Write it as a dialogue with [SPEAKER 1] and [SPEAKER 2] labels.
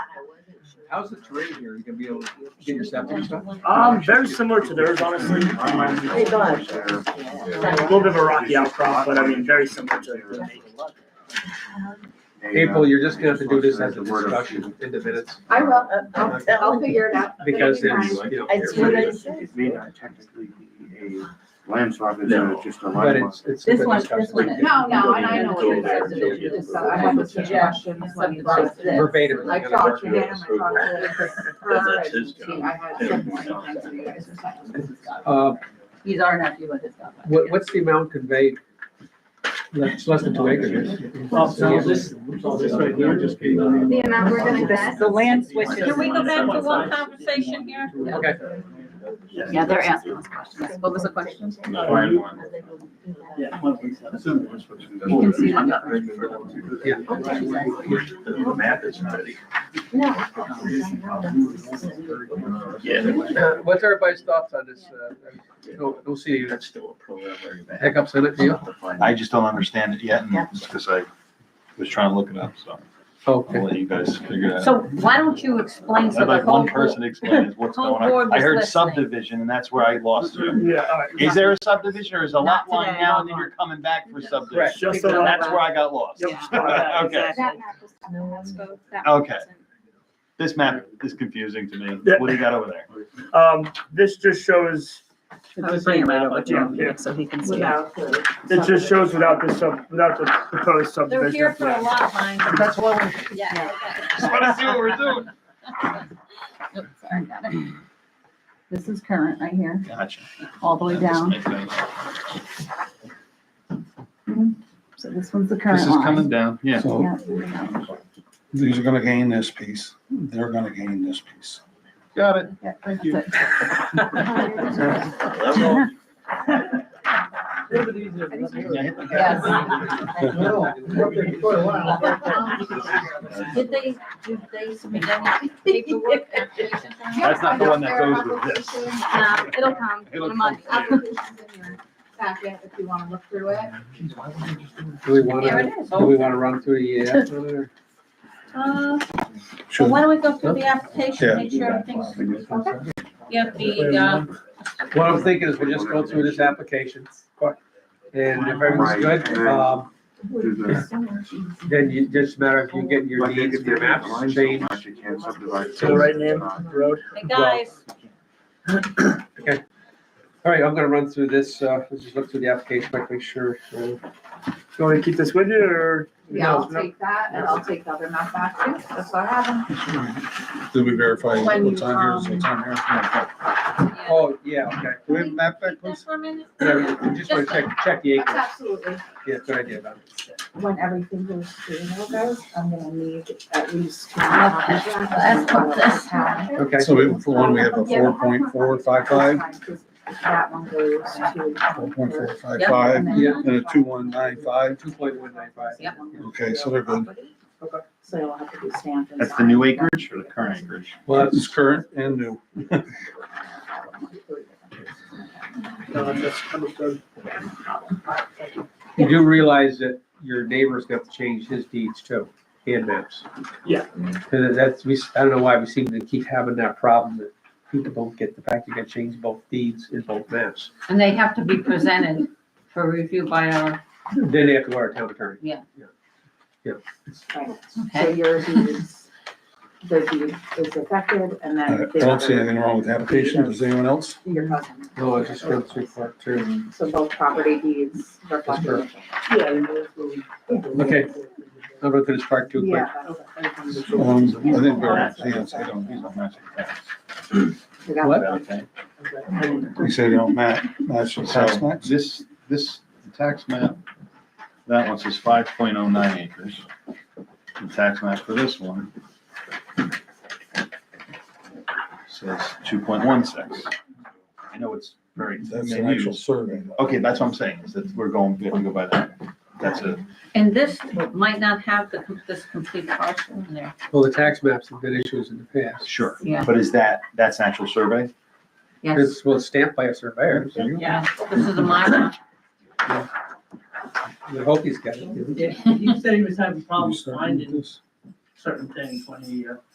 [SPEAKER 1] How's the terrain here? You gonna be able to get your septic and stuff?
[SPEAKER 2] Um, very similar to theirs, honestly.
[SPEAKER 3] Hey, Don.
[SPEAKER 2] A little bit of a rocky outcrop, but I mean, very similar to it.
[SPEAKER 1] April, you're just gonna have to do this as a discussion in the minutes
[SPEAKER 3] I will, uh, I'll, I'll figure it out.
[SPEAKER 1] because
[SPEAKER 3] It'll be
[SPEAKER 1] it's,
[SPEAKER 3] fine.
[SPEAKER 1] you know.
[SPEAKER 3] It's what I said.
[SPEAKER 4] It may not technically be a land swap, it's
[SPEAKER 1] No.
[SPEAKER 4] uh, just a
[SPEAKER 1] But
[SPEAKER 4] land.
[SPEAKER 1] it's, it's. a
[SPEAKER 5] This
[SPEAKER 1] good
[SPEAKER 5] one-
[SPEAKER 1] discussion.
[SPEAKER 5] this one is-
[SPEAKER 6] No, no, and I know what it is.
[SPEAKER 4] Yeah.
[SPEAKER 6] It's just that I have a suggestion, it's like it's just this.
[SPEAKER 1] Verbatim.
[SPEAKER 6] I
[SPEAKER 1] we're gonna
[SPEAKER 6] talked
[SPEAKER 1] work
[SPEAKER 6] to
[SPEAKER 1] with
[SPEAKER 6] him, I
[SPEAKER 1] it.
[SPEAKER 6] talked to her,
[SPEAKER 7] That's
[SPEAKER 6] and
[SPEAKER 7] his
[SPEAKER 6] she,
[SPEAKER 7] job.
[SPEAKER 6] I had some more things for you guys to sign.
[SPEAKER 1] Uh,
[SPEAKER 5] He's our nephew with his stuff.
[SPEAKER 1] what, what's the amount conveyed? It's less than two acres.
[SPEAKER 2] So this, so this right here just be.
[SPEAKER 3] The amount we're gonna get.
[SPEAKER 5] The land switches.
[SPEAKER 8] Can we go back to one conversation here?
[SPEAKER 1] Okay.
[SPEAKER 5] Yeah, they're asking us questions. What was the question?
[SPEAKER 2] Yeah. one piece of it.
[SPEAKER 5] You can see them.
[SPEAKER 1] Yeah.
[SPEAKER 7] The map is not.
[SPEAKER 1] Uh, What's everybody's thoughts on this? uh, No, no see
[SPEAKER 7] That's still a preliminary map.
[SPEAKER 1] hiccups in it, do you?
[SPEAKER 9] I just don't understand it yet, and
[SPEAKER 5] Yeah.
[SPEAKER 9] because I was trying to look it up, so I'll
[SPEAKER 1] Okay.
[SPEAKER 9] let you guys figure it out.
[SPEAKER 5] So why don't you explain so
[SPEAKER 9] I'd
[SPEAKER 5] the
[SPEAKER 9] like
[SPEAKER 5] whole
[SPEAKER 9] one
[SPEAKER 5] board?
[SPEAKER 9] person to explain is what's
[SPEAKER 5] whole
[SPEAKER 9] going
[SPEAKER 5] board
[SPEAKER 9] on. I
[SPEAKER 5] was
[SPEAKER 9] heard
[SPEAKER 5] listening.
[SPEAKER 9] subdivision, and that's where I lost you.
[SPEAKER 2] Yeah, all right.
[SPEAKER 9] Is there a subdivision, or is a
[SPEAKER 5] Not
[SPEAKER 9] lot line
[SPEAKER 5] today,
[SPEAKER 9] now,
[SPEAKER 5] lot
[SPEAKER 9] and then
[SPEAKER 5] line.
[SPEAKER 9] you're coming back for
[SPEAKER 5] Yeah.
[SPEAKER 2] Correct.
[SPEAKER 9] subdivision?
[SPEAKER 2] Just so
[SPEAKER 9] And
[SPEAKER 2] that-
[SPEAKER 9] that's where I got lost.
[SPEAKER 2] Yep.
[SPEAKER 9] Yeah. Okay.
[SPEAKER 3] That map was on the Hasco. That
[SPEAKER 9] Okay.
[SPEAKER 3] wasn't.
[SPEAKER 9] This map is confusing to me.
[SPEAKER 2] Yeah.
[SPEAKER 9] What do you got over there?
[SPEAKER 2] Um, this just shows,
[SPEAKER 5] I was bringing that over to
[SPEAKER 2] Yeah.
[SPEAKER 5] him so he can see. it.
[SPEAKER 6] Without the-
[SPEAKER 2] it just shows without the sub, without the proposed
[SPEAKER 8] They're
[SPEAKER 2] subdivision.
[SPEAKER 8] here for a lot, mine.
[SPEAKER 9] That's what I
[SPEAKER 8] Yeah.
[SPEAKER 9] just want to see what we're doing.
[SPEAKER 5] Nope, sorry, got it. This is current right here,
[SPEAKER 9] Gotcha.
[SPEAKER 5] all the way down. So this one's the current line.
[SPEAKER 9] down, yeah.
[SPEAKER 5] Yeah.
[SPEAKER 10] These are gonna gain this piece, they're gonna gain this piece.
[SPEAKER 9] Got it.
[SPEAKER 5] Yeah,
[SPEAKER 9] Thank you.
[SPEAKER 5] that's it.
[SPEAKER 8] Did they, did they submit any paperwork? application form?
[SPEAKER 9] That's not the one that goes with this.
[SPEAKER 3] Uh, It'll come
[SPEAKER 9] It'll
[SPEAKER 3] in a month.
[SPEAKER 9] come.
[SPEAKER 6] Application's in your packet if you wanna look through it.
[SPEAKER 1] Do we
[SPEAKER 8] There
[SPEAKER 1] wanna,
[SPEAKER 8] it is.
[SPEAKER 1] do we wanna run through the, uh,
[SPEAKER 8] Uh,
[SPEAKER 10] Sure.
[SPEAKER 8] Well, why don't we go through the application, make sure everything's, yeah, the, uh,
[SPEAKER 1] What I'm thinking is we'll just go through this application. And if everything's good, um, then you, just a matter of you getting your needs and your maps changed.
[SPEAKER 2] To the right name, road.
[SPEAKER 8] hey, guys,
[SPEAKER 1] All right, I'm gonna run through this, uh, let's just look through the application, quick, make sure. uh,
[SPEAKER 2] You wanna keep this with you or?
[SPEAKER 6] Yeah, I'll
[SPEAKER 2] No, no.
[SPEAKER 6] take that and I'll take the other map back too, that's what I have.
[SPEAKER 10] Did we verify
[SPEAKER 6] When you,
[SPEAKER 10] what's on here is what's on here?
[SPEAKER 8] yeah,
[SPEAKER 1] Oh, yeah, okay.
[SPEAKER 10] Do we have a map back,
[SPEAKER 8] Keep
[SPEAKER 10] please?
[SPEAKER 8] this for a minute.
[SPEAKER 1] Yeah, we Just wanna check, check the acres.
[SPEAKER 6] Absolutely.
[SPEAKER 1] Yeah, good idea, Don.
[SPEAKER 6] when everything goes through, now, guys, I'm gonna need at least. two
[SPEAKER 8] Okay,
[SPEAKER 6] copies.
[SPEAKER 8] let's put this one.
[SPEAKER 1] Okay.
[SPEAKER 10] So we- for one, we have a four point four five five,
[SPEAKER 6] That one goes to.
[SPEAKER 10] four point four five
[SPEAKER 5] Yep,
[SPEAKER 10] five,
[SPEAKER 5] and then-
[SPEAKER 1] Yeah.
[SPEAKER 10] and a two one nine five.
[SPEAKER 1] uh, Two point one nine five.
[SPEAKER 5] Yep.
[SPEAKER 10] Okay, so they're good.
[SPEAKER 6] Okay. So it'll have to be stamped. and
[SPEAKER 9] That's the new
[SPEAKER 6] signed.
[SPEAKER 9] acreage or the current acreage?
[SPEAKER 1] Well,
[SPEAKER 10] It's current and new.
[SPEAKER 2] No, that's understood.
[SPEAKER 1] you do realize that your neighbor's got to change his deeds too, hand maps.
[SPEAKER 2] Yeah.
[SPEAKER 1] Cause that's, we, I don't know why we seem to keep having that problem that people don't get the fact you gotta change both deeds in both maps.
[SPEAKER 5] And they have to be presented for review by our,
[SPEAKER 1] Then they have to go to our town attorney.
[SPEAKER 6] Right. So
[SPEAKER 5] okay,
[SPEAKER 6] your deed is, the deed is affected and
[SPEAKER 10] I
[SPEAKER 9] Uh,
[SPEAKER 6] then.
[SPEAKER 10] I don't see anything wrong with the application, does anyone else?
[SPEAKER 6] Your cousin,
[SPEAKER 1] No, I just went through part two.
[SPEAKER 6] so both property deeds reflect.
[SPEAKER 1] That's
[SPEAKER 6] Yeah.
[SPEAKER 1] Okay, I'll go through this part two quick.
[SPEAKER 6] Yeah. that's-
[SPEAKER 10] Um, I think we're, yes, I don't,
[SPEAKER 9] These don't match.
[SPEAKER 6] We got
[SPEAKER 1] What?
[SPEAKER 9] Okay.
[SPEAKER 10] we say they don't match, match the
[SPEAKER 9] So
[SPEAKER 10] tax match.
[SPEAKER 9] this, this tax map, that one says five point oh nine acres. The tax map for this one says two point one six. I know it's very
[SPEAKER 10] That's an actual
[SPEAKER 9] minuscule.
[SPEAKER 10] survey.
[SPEAKER 9] Okay, that's what I'm saying, is that we're going, we have to go by that. That's a,
[SPEAKER 5] and this might not have the, com- this complete parcel in there.
[SPEAKER 1] Well, the tax maps have been issues in the past.
[SPEAKER 9] sure.
[SPEAKER 5] Yeah.
[SPEAKER 9] But is that, that's an actual survey?
[SPEAKER 5] Yes,
[SPEAKER 1] It's, well, it's stamped by a surveyor. so you-
[SPEAKER 5] yeah, this is a minor.
[SPEAKER 1] You hope he's got it.
[SPEAKER 2] You said he was having
[SPEAKER 10] problems finding
[SPEAKER 2] certain things when he, uh,